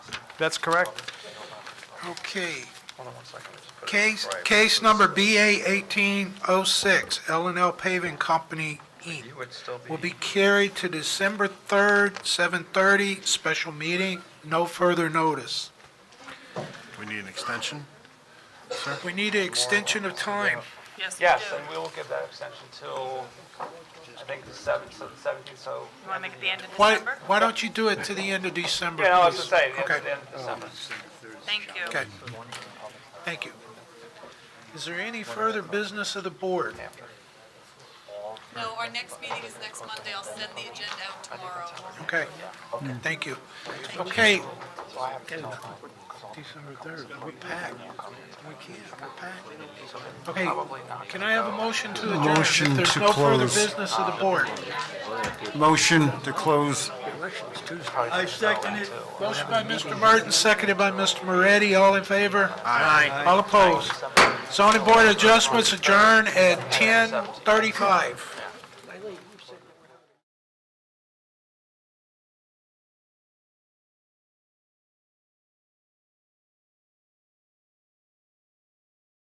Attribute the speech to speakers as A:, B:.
A: That's correct?
B: Okay.
A: Hold on one second. Let's put it
B: Case,
A: right.
B: case number BA 1806, l and L Paving Company, Inc.
A: You would still be-
B: Will be carried to December 3rd, 7:30, special meeting, no further notice.
C: We need an extension?
B: We need an extension of time.
D: Yes, we do.
E: Yes, and we will give that extension till, I think, the seventh, so the seventeenth, so.
D: You want to make it the end of
B: Why,
D: December?
B: why don't you do it to the end of December,
E: Yeah, no, I was
B: please?
E: just saying, yeah,
B: Okay.
E: the end of December.
D: Thank you.
B: Okay. Thank you. Is there any further business of the board?
F: No, our next meeting is next Monday. I'll send the agenda out tomorrow.
B: Okay, thank you. Okay. December 3rd, we're packed. We can't, we're packed. Okay, can I have a motion to adjourn?
C: Motion
B: If there's
C: to
B: no further
C: close.
B: business of the board.
C: Motion to close.
A: I second it.
B: Motion by Mr. Martin, seconded by Mr. Moretti, all in favor? Aye. All opposed? Zoning Board of Adjustments adjourn at 10:35.